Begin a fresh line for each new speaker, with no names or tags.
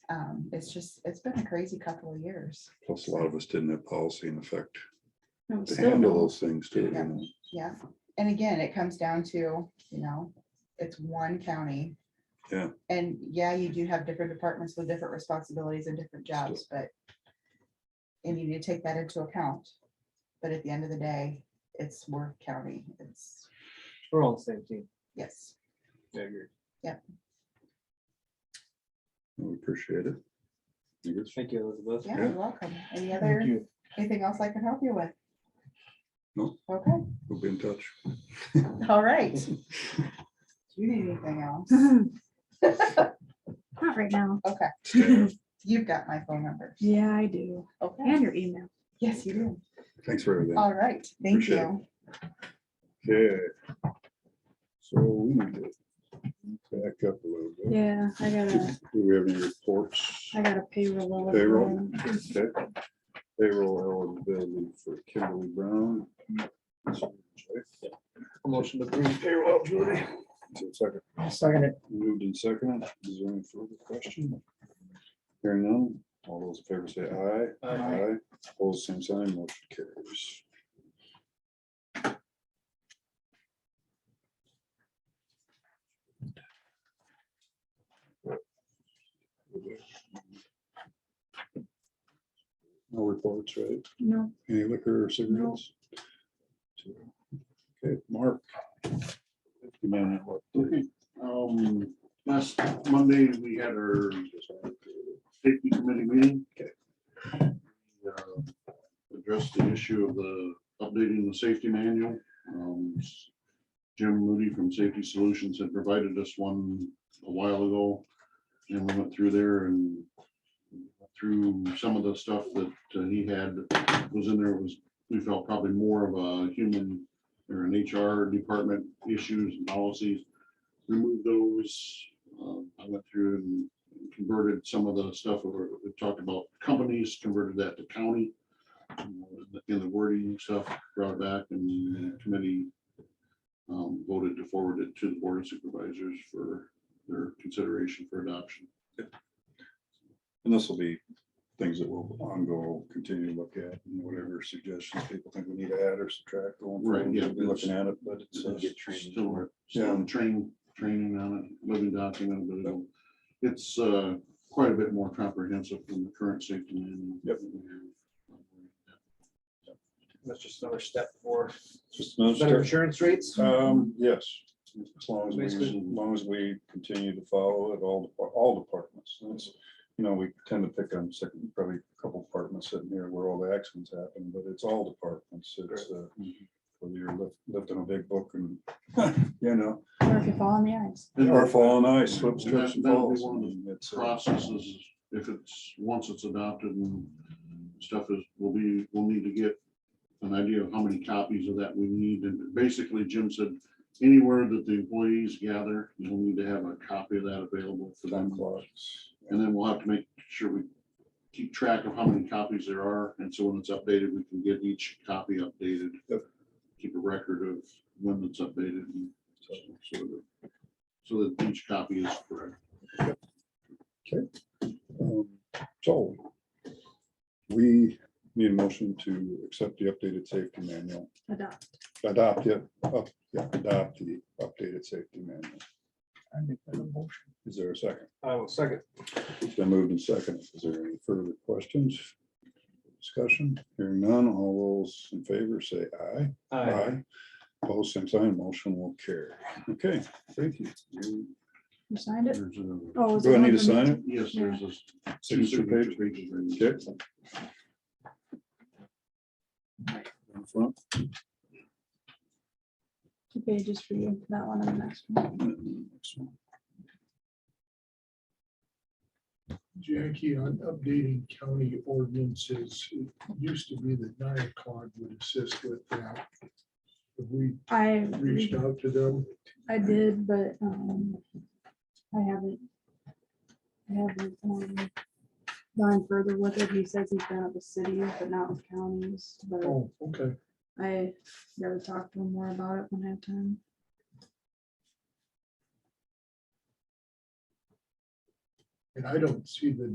um, it's just, it's been a crazy couple of years.
Plus, a lot of us didn't have policy in effect
No, we
to
still
handle
don't.
those things too. you
Yeah.
know.
Yeah, and again, it comes down to, you know, it's one county.
Yeah.
And yeah, you do have different departments with different responsibilities and different jobs, but. And you need to take that into account. But at the end of the day, it's Worth County, it's,
We're all the same team.
yes,
I agree.
We appreciate it. I guess-
Thank you, Elizabeth.
yeah,
Yeah.
you're welcome. Any
Thank
other,
you.
anything else I can help you with?
No.
Okay,
We'll be in touch.
all right. Do you need anything else?
Not right now.
Okay,
Staff,
you've got my phone number.
Yeah, I do.
Okay,
And your email.
yes, you do.
Thanks for everything.
All right, thank
Appreciate it.
you.
Okay. So we need to back up a little bit.
Yeah, I got a,
Do we have any reports?
I got a payroll. of
Payroll.
mine.
Okay. Payroll eligibility for Kimberly Brown.
Motion to approve.
Payroll eligibility. Two seconds.
Second it.
Moved and seconded. Is there any further question? Hearing none, all those in favor say aye.
Aye.
Opposed, same sign, motion carries. No reports, right?
No,
Any liquor or cigarettes? Okay, Mark. You man, what?
Okay, um, last Monday, we had our safety committee meeting. Uh, Addressed the issue of the updating the safety manual. Um, Jim Moody from Safety Solutions had provided us one a while ago. And we went through there and through some of the stuff that uh, he had was in there was, we felt probably more of a human or an HR department issues and policies removed those. Um, I went through and converted some of the stuff we were- we talked about companies, converted that to county. Uh, In the wording stuff brought it back and the committee um, voted to forward it to the board of supervisors for their consideration for adoption.
And this will be things that will ongo, continue to look at, and whatever suggestions people think we need to add or subtract. going forward,
Right, yeah.
We'll be looking at it, but it's. uh,
Still,
Yeah.
still train, training on it, living document, but it'll- it's uh, quite a bit more comprehensive than the current safety manual.
Yep.
That's just another step for
Just another
better
step.
insurance rates.
Um, yes, as long as we, as
Basically.
long as we continue to follow it, all, all departments. That's, you know, we tend to pick on second, probably a couple departments sitting here where all the accidents happen, but it's all departments. It's uh whether you're lift- lifting a big book and, you know,
or if you fall on the ice.
Or fall on ice, slip,
That-
trips and
that'll be
falls.
one of the
I mean, it's, uh,
processes, if it's, once it's adopted and stuff is, will be, we'll need to get an idea of how many copies of that we need. And basically Jim said, anywhere that the employees gather, you'll need to have a copy of that available for
Time
them.
clocks.
And then we'll have to make sure we keep track of how many copies there are. And so when it's updated, we can get each copy updated.
Yep.
Keep a record of when it's updated and so, so that- so that each copy is correct.
Um, So we need a motion to accept the updated safety manual,
Adopt.
adopt it, up- yeah, adopt the updated safety manual. Is there a second?
I will second.
It's been moved and seconded. Is there any further questions? Discussion, hearing none, all those in favor say aye.
Aye.
Opposed, same sign, motion will carry. Okay, thank you. You-
You signed it?
There's a-
Oh, is
Do I
it
need
one for
to
me?
sign it?
Yes, there's a two
Signature
signature
page?
pages. right there.
Okay. In front.
Two pages for you, that one and the next one.
Jackie, on updating county ordinances, it used to be that NIACOG would assist with that. Have we
I,
reached out to them?
I did, but, um, I haven't. I haven't, um, gone further with it. He says he's done it with cities, but not with counties, but.
Oh, okay.
I gotta talk to him more about it when I have time.
And I don't see the